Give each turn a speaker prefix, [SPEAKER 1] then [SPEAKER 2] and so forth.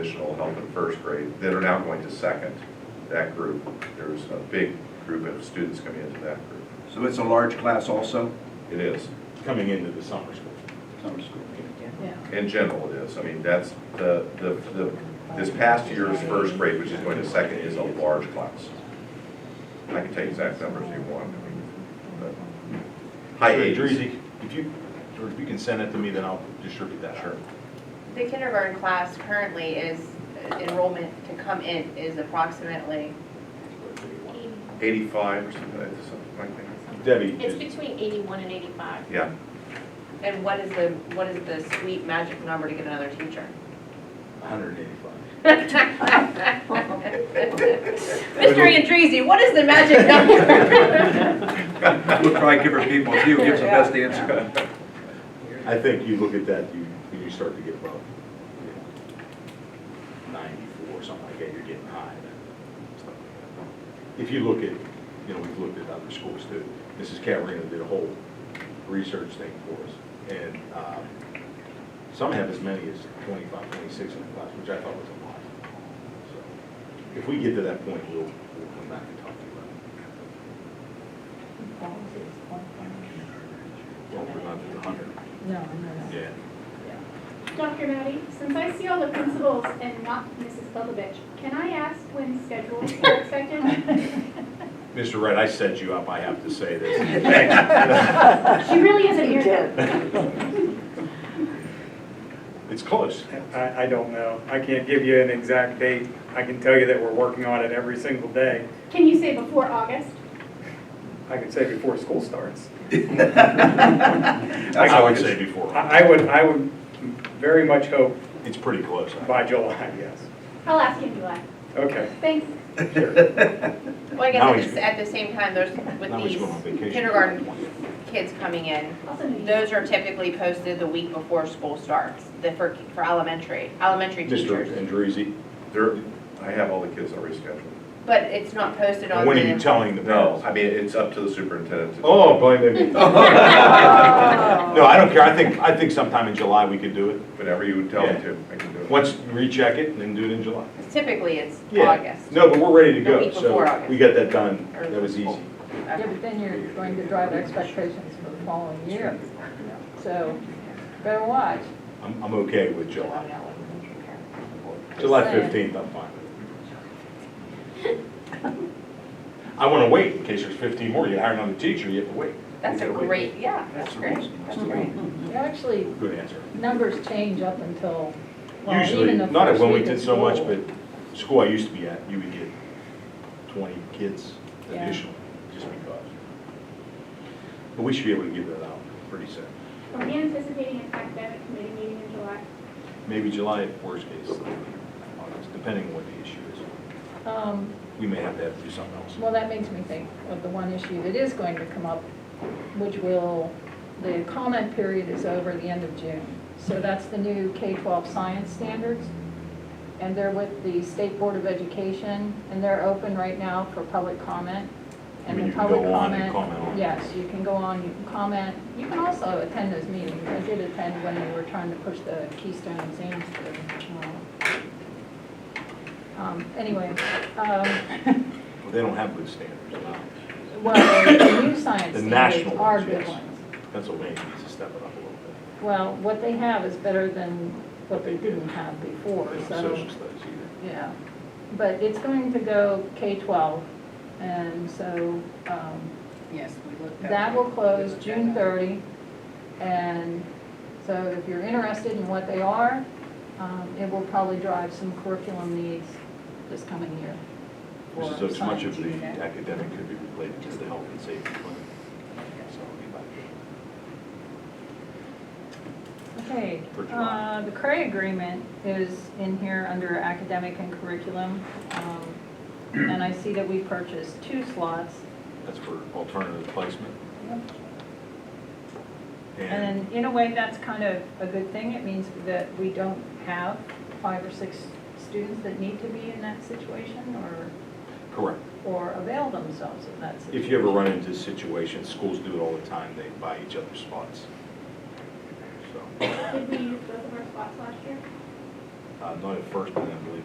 [SPEAKER 1] additional help in first grade that are now going to second, that group. There's a big group of students coming into that group.
[SPEAKER 2] So it's a large class also,
[SPEAKER 1] It is.
[SPEAKER 3] coming into the summer school.
[SPEAKER 2] summer school?
[SPEAKER 4] Yeah.
[SPEAKER 1] In general, it is. I mean, that's the, the, the, this past year's first grade, which is going to second, is a large class. I can tell you exact numbers if you want, I mean, but high
[SPEAKER 3] Sure,
[SPEAKER 1] eighties.
[SPEAKER 3] Drizzy, if you, George, if you can send it to me, then I'll distribute that. Sure.
[SPEAKER 5] The kindergarten class currently is, enrollment to come in is approximately,
[SPEAKER 1] Eighty-five or something, like- something like that.
[SPEAKER 3] Debbie,
[SPEAKER 6] It's
[SPEAKER 3] just-
[SPEAKER 6] between 81 and 85.
[SPEAKER 1] Yeah,
[SPEAKER 5] and what is the, what is the sweet magic number to get another teacher?
[SPEAKER 3] 185.
[SPEAKER 5] Mr. Andreezy, what is the magic number?
[SPEAKER 2] We'll try and give her people, you gives the best answer.
[SPEAKER 3] I think you look at that, you, you start to get above you know, 94, something like that, you're getting high. then, stuff like that. If you look at, you know, we've looked at other schools too. Mrs. Catarina did a whole research thing for us. And um, some have as many as 25, 26 in the class, which I thought was a lot. So If we get to that point, we'll, we'll come back and talk to you about it. Well, we're not at 100.
[SPEAKER 4] No, no, no.
[SPEAKER 3] Yeah.
[SPEAKER 7] Dr. Maddie, since I see all the principals and not Mrs. Bubovich, can I ask when schedules are expected?
[SPEAKER 3] Mr. Wright, I set you up, I have to say this.
[SPEAKER 7] She really isn't here.
[SPEAKER 3] It's close.
[SPEAKER 8] I, I don't know. I can't give you an exact date. I can tell you that we're working on it every single day.
[SPEAKER 7] Can you say before August?
[SPEAKER 8] I could say before school starts.
[SPEAKER 3] That's what I would say before.
[SPEAKER 8] I, I would, I would very much hope
[SPEAKER 3] It's pretty close.
[SPEAKER 8] by July, yes.
[SPEAKER 7] I'll ask you in July.
[SPEAKER 8] Okay.
[SPEAKER 7] Thanks.
[SPEAKER 5] Well, I guess
[SPEAKER 3] Now
[SPEAKER 5] at the,
[SPEAKER 3] he's-
[SPEAKER 5] s- at the same time, there's, with
[SPEAKER 3] Now he's going on
[SPEAKER 5] these
[SPEAKER 3] vacation.
[SPEAKER 5] kindergarten kids coming in,
[SPEAKER 7] Also, New Year.
[SPEAKER 5] those are typically posted the week before school starts, the, for, for elementary, elementary
[SPEAKER 3] Mr.
[SPEAKER 5] teachers.
[SPEAKER 3] Andrezzi,
[SPEAKER 1] there, I have all the kids already scheduled.
[SPEAKER 5] But it's not posted on the.
[SPEAKER 3] when are you telling the
[SPEAKER 1] No,
[SPEAKER 3] parents?
[SPEAKER 1] I mean, it's up to the superintendent to.
[SPEAKER 3] Oh, blame me. No, I don't care. I think, I think sometime in July we could do it.
[SPEAKER 1] Whenever you tell them to, I can do it.
[SPEAKER 3] Oh. Once you recheck it, and then do it in July.
[SPEAKER 5] Typically, it's
[SPEAKER 3] Yeah.
[SPEAKER 5] August.
[SPEAKER 3] No, but we're ready to
[SPEAKER 5] The
[SPEAKER 3] go,
[SPEAKER 5] week before
[SPEAKER 3] so
[SPEAKER 5] August.
[SPEAKER 3] we got that done. That was easy.
[SPEAKER 5] Okay.
[SPEAKER 4] Yeah, but then you're going to drive expectations for the following year. you know. So better watch.
[SPEAKER 3] I'm, I'm okay with July. July
[SPEAKER 4] Just saying.
[SPEAKER 3] 15th, I'm fine with it. I want to wait in case there's 15 more. You hire another teacher, you have to wait.
[SPEAKER 5] That's a
[SPEAKER 3] You gotta wait.
[SPEAKER 5] great, yeah, that's great, that's great.
[SPEAKER 4] You Actually,
[SPEAKER 3] Good answer.
[SPEAKER 4] numbers change up until, well,
[SPEAKER 3] Usually,
[SPEAKER 4] even the
[SPEAKER 3] not at
[SPEAKER 4] first week
[SPEAKER 3] Wilmington
[SPEAKER 4] of
[SPEAKER 3] so much,
[SPEAKER 4] school.
[SPEAKER 3] but school I used to be at, you would get twenty kids
[SPEAKER 4] Yeah.
[SPEAKER 3] additional, just because. But we should be able to get that out pretty soon,
[SPEAKER 7] Are we anticipating an academic committee meeting in July?
[SPEAKER 3] maybe July, worst case, August, depending on what the issue is.
[SPEAKER 4] Um,
[SPEAKER 3] We may have to have to do something else.
[SPEAKER 4] Well, that makes me think of the one issue that is going to come up, which will, the comment period is over the end of June. So that's the new K-12 science standards, and they're with the State Board of Education, and they're open right now for public comment.
[SPEAKER 3] I
[SPEAKER 4] And
[SPEAKER 3] mean,
[SPEAKER 4] the
[SPEAKER 3] you can
[SPEAKER 4] public
[SPEAKER 3] go on and comment on. it.
[SPEAKER 4] Yes, you can go on, you can comment. You can also attend those meetings. I did attend when we were trying to push the Keystone exams through. Um, Anyway, um,
[SPEAKER 3] But they don't have good standards now.
[SPEAKER 4] well, the new science
[SPEAKER 3] The
[SPEAKER 4] standards
[SPEAKER 3] national
[SPEAKER 4] are
[SPEAKER 3] ones,
[SPEAKER 4] good
[SPEAKER 3] yes.
[SPEAKER 4] ones.
[SPEAKER 3] Pennsylvania needs to step it up a little
[SPEAKER 4] Well, what they have is better than what they didn't have before,
[SPEAKER 3] bit. They don't have
[SPEAKER 4] so,
[SPEAKER 3] Social studies either.
[SPEAKER 4] yeah. But it's going to go K-12, and so um,
[SPEAKER 9] Yes, we looked at.
[SPEAKER 4] that will close
[SPEAKER 9] Okay.
[SPEAKER 4] June 30. And so if you're interested in what they are, um, it will probably drive some curriculum needs this coming year. for
[SPEAKER 3] This is as much of
[SPEAKER 4] science.
[SPEAKER 3] the academic could be related to the health and safety plan. So it'll be about that.
[SPEAKER 4] Okay,
[SPEAKER 3] For July.
[SPEAKER 4] uh, the CRA agreement is in here under academic and curriculum. um, And I see that we purchased two slots.
[SPEAKER 3] That's for alternative placement. And,
[SPEAKER 4] And in a way, that's kind of a good thing. It means that we don't have five or six students that need to be in that situation or,
[SPEAKER 3] correct.
[SPEAKER 4] or avail themselves of that situation.
[SPEAKER 3] If you ever run into situations, schools do it all the time, they buy each other spots. So,
[SPEAKER 7] Did we use both of our spots last year?
[SPEAKER 3] uh, not at first, but then